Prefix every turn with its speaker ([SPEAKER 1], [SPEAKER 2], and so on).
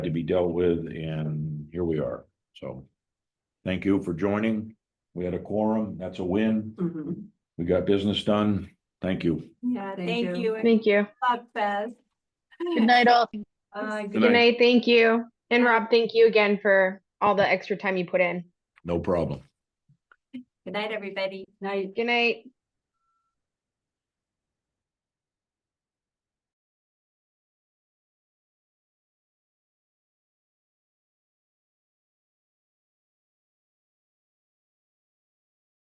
[SPEAKER 1] to be dealt with, and here we are, so. Thank you for joining. We had a quorum, that's a win.
[SPEAKER 2] Mhm.
[SPEAKER 3] Mm-hmm.
[SPEAKER 1] We got business done. Thank you.
[SPEAKER 2] Yeah,
[SPEAKER 3] Thank you. and
[SPEAKER 4] Thank you.
[SPEAKER 3] God bless.
[SPEAKER 4] Good night, all.
[SPEAKER 3] Uh,
[SPEAKER 1] Good
[SPEAKER 3] good-
[SPEAKER 4] Good
[SPEAKER 1] night.
[SPEAKER 4] night. Thank you. And Rob, thank you again for all the extra time you put in.
[SPEAKER 1] No problem.
[SPEAKER 3] Good night, everybody.
[SPEAKER 2] Night.
[SPEAKER 4] Good night.